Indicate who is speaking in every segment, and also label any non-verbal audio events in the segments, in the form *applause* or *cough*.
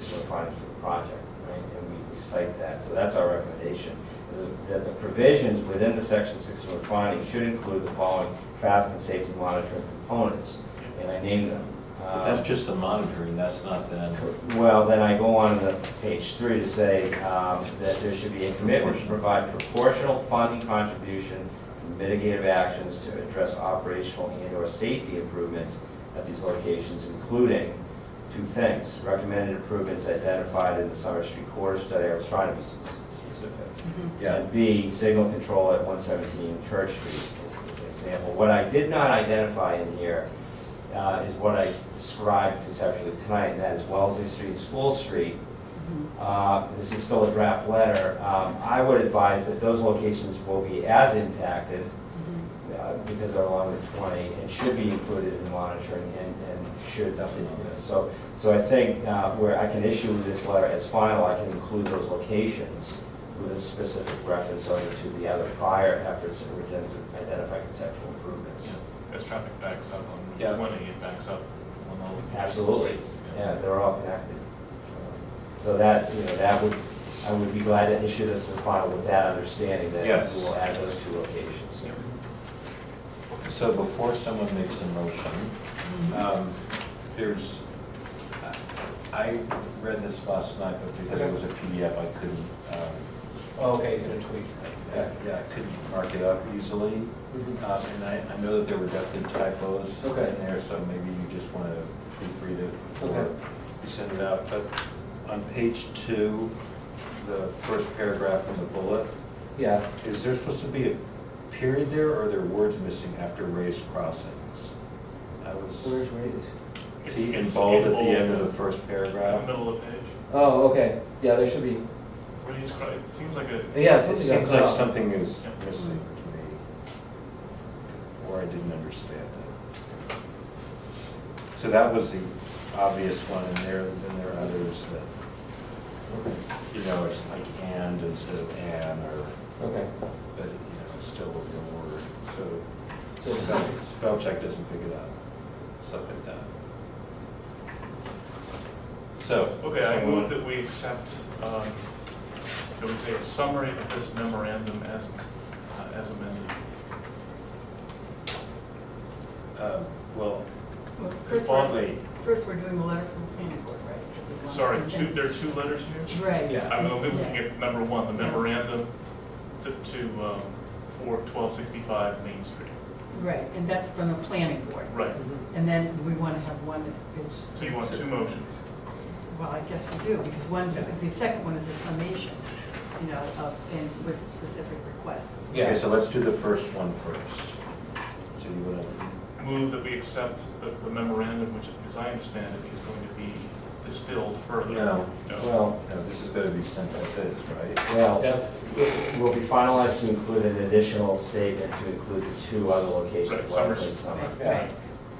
Speaker 1: frontage of the project, right? And we- we cite that, so that's our recommendation. That the provisions within the section 61 finding should include the following traffic and safety monitoring components, and I named them.
Speaker 2: But that's
Speaker 1: Um,
Speaker 2: just the monitoring, that's not the,
Speaker 1: Well, then I go on to page three to say um, that there should be a commitment to provide proportional funding contribution for mitigative actions to address operational and/or safety improvements at these locations, including two things, recommended improvements identified in the Summer Street corridor study, I was trying to be specific.
Speaker 2: yeah,
Speaker 1: And B, signal control at 117 Church Street is is an example. What I did not identify in here uh, is what I described conceptually tonight, and that is Wellesley Street, and School Street. Uh, This is still a draft letter. Um, I would advise that those locations will be as impacted uh, because they're along Route 20 and should be included in the monitoring and and should definitely. So, so I think uh, where I can issue this letter as final, I can include those locations with a specific reference over to the other prior efforts that were done to identify conceptual improvements.
Speaker 3: As traffic backs up on
Speaker 2: Yeah.
Speaker 3: Route 20, it backs up on all these streets.
Speaker 1: Absolutely, yeah, they're all connected. So that, you know, that would, I would be glad to issue this as final with that understanding that
Speaker 2: Yes.
Speaker 1: we will add those two locations.
Speaker 2: so before someone makes a motion,
Speaker 4: Mm-hmm.
Speaker 2: um, there's, I I read this last night, but because it was a PDF, I couldn't, um,
Speaker 4: Oh, Okay, you're gonna tweak.
Speaker 2: yeah, yeah, I couldn't mark it up easily.
Speaker 4: Mhm.
Speaker 2: Um, And I, I know that there were definitely typos in
Speaker 4: Okay.
Speaker 2: there, so maybe you just want to proofread it
Speaker 4: Okay.
Speaker 2: before you send it out. But on page two, the first paragraph in the bullet,
Speaker 4: Yeah,
Speaker 2: Is there supposed to be a period there, or are there words missing after raised crossings? I was,
Speaker 4: where's Ray's?
Speaker 3: It's-
Speaker 2: see, in
Speaker 3: it's
Speaker 2: bold at the
Speaker 3: bold
Speaker 2: end of
Speaker 3: in
Speaker 2: the first
Speaker 3: the
Speaker 2: paragraph.
Speaker 3: Middle of the page.
Speaker 4: Oh, okay, yeah, there should be,
Speaker 3: What he's, cri- it seems like a.
Speaker 4: yeah,
Speaker 2: It
Speaker 4: something got
Speaker 2: seems
Speaker 4: cut
Speaker 2: like
Speaker 4: off.
Speaker 2: something is
Speaker 3: Yeah.
Speaker 2: missing to me, or I didn't understand it. So that was the obvious one, and there, then there are others that, you know, it's like and instead of an, or,
Speaker 4: Okay,
Speaker 2: but, you know, it's still a real word, so
Speaker 4: so,
Speaker 2: Spell spell check doesn't pick it up, stuff like that. So.
Speaker 3: Okay, I
Speaker 2: someone-
Speaker 3: move that we accept, um, I would say a summary of this memorandum as, uh, as amended.
Speaker 2: Um, Well,
Speaker 5: Well, First,
Speaker 2: Partly.
Speaker 5: we're, first we're doing a letter from the planning board, right?
Speaker 3: Sorry, two, there are two letters here?
Speaker 5: Right.
Speaker 4: Yeah.
Speaker 3: I'm hoping we can get number one, the memorandum to, to, um, for 1265 Main Street.
Speaker 5: Right, and that's from the planning board.
Speaker 3: Right,
Speaker 5: And then we want to have one that is,
Speaker 3: so you want two motions.
Speaker 5: well, I guess we do, because one's,
Speaker 2: Yeah.
Speaker 5: the second one is a summation, you know, of, and with specific requests.
Speaker 2: okay,
Speaker 4: yeah,
Speaker 2: so let's do the first one first. So you want to,
Speaker 3: Move that we accept the the memorandum, which, as I understand it, is going to be distilled further.
Speaker 2: No.
Speaker 1: Well,
Speaker 2: no, this is going to be sent as is, right?
Speaker 1: well.
Speaker 4: that's,
Speaker 1: will be finalized to include an additional statement to include the two other locations.
Speaker 3: Right, Summer
Speaker 1: Wellesley and
Speaker 3: Street.
Speaker 1: Summer.
Speaker 4: yeah,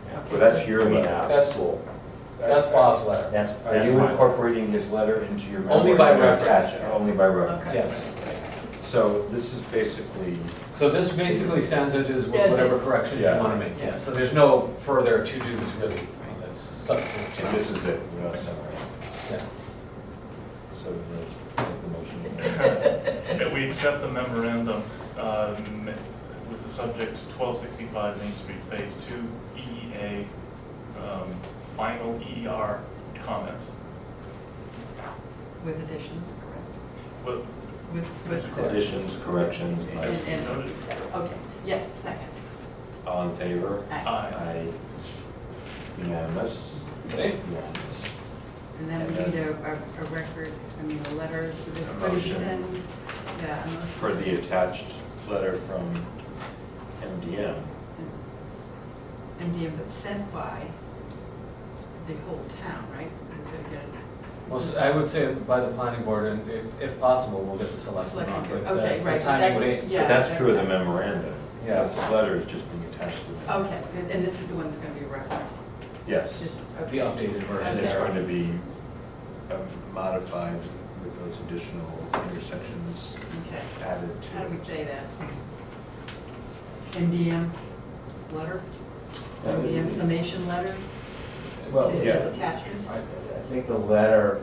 Speaker 1: Yeah.
Speaker 2: Well, that's your
Speaker 1: I mean,
Speaker 2: letter.
Speaker 1: uh,
Speaker 4: That's-
Speaker 1: cool.
Speaker 4: that's Bob's letter.
Speaker 1: That's.
Speaker 2: Are
Speaker 1: that's
Speaker 2: you
Speaker 1: my-
Speaker 2: incorporating his letter into your?
Speaker 4: Only by
Speaker 2: memoir? No,
Speaker 4: reference.
Speaker 2: attach- Only by reference.
Speaker 5: Okay.
Speaker 4: Yes,
Speaker 2: So this is basically,
Speaker 4: so this basically stands it as
Speaker 5: Yes,
Speaker 4: with whatever
Speaker 5: it's-
Speaker 4: corrections you
Speaker 2: Yeah.
Speaker 4: wanna make, yeah, so there's no further to do's really, on this substantive
Speaker 2: and this
Speaker 4: change.
Speaker 2: is it, we're not summarizing.
Speaker 4: Yeah.
Speaker 2: So uh, make the motion.
Speaker 3: *laughs* That we accept the memorandum um, with the subject 1265 Main Street Phase 2 EEA, um, final EER comments.
Speaker 5: With additions, correct?
Speaker 3: But
Speaker 5: With, with.
Speaker 2: Additions, corrections,
Speaker 5: And,
Speaker 2: nice.
Speaker 5: and, et cetera. okay, yes, second.
Speaker 2: All in favor?
Speaker 5: Aye.
Speaker 3: I,
Speaker 2: Aye. Unanimous?
Speaker 4: Okay.
Speaker 2: Unanimous.
Speaker 5: And then we need a, a a record, I mean, a letter for this
Speaker 2: A motion.
Speaker 5: person. Yeah, a motion.
Speaker 2: For the attached letter from MDM.
Speaker 5: And yeah, but sent by the whole town, right? We gotta get it.
Speaker 4: Well, s- I would say by the planning board, and if, if possible, we'll get the selectmen on,
Speaker 5: Selectmen,
Speaker 4: but the-
Speaker 5: okay, right,
Speaker 4: the
Speaker 5: but
Speaker 4: timing
Speaker 5: that's-
Speaker 4: would ain't.
Speaker 5: Yeah,
Speaker 2: But that's true of the
Speaker 5: that's-
Speaker 2: memorandum.
Speaker 4: Yeah.
Speaker 2: The letter is just being attached to the.
Speaker 5: Okay, and- and this is the one that's gonna be referenced.
Speaker 2: Yes.
Speaker 5: This is-
Speaker 4: The
Speaker 5: okay.
Speaker 4: updated version
Speaker 2: And it's
Speaker 4: there.
Speaker 2: going to be um, modified with those additional intersections
Speaker 5: Okay,
Speaker 2: added
Speaker 5: how do we
Speaker 2: to.
Speaker 5: say that? NDM letter? NDM summation letter?
Speaker 1: Well,
Speaker 5: To-
Speaker 2: yeah.
Speaker 5: Attachment?
Speaker 1: I I think the letter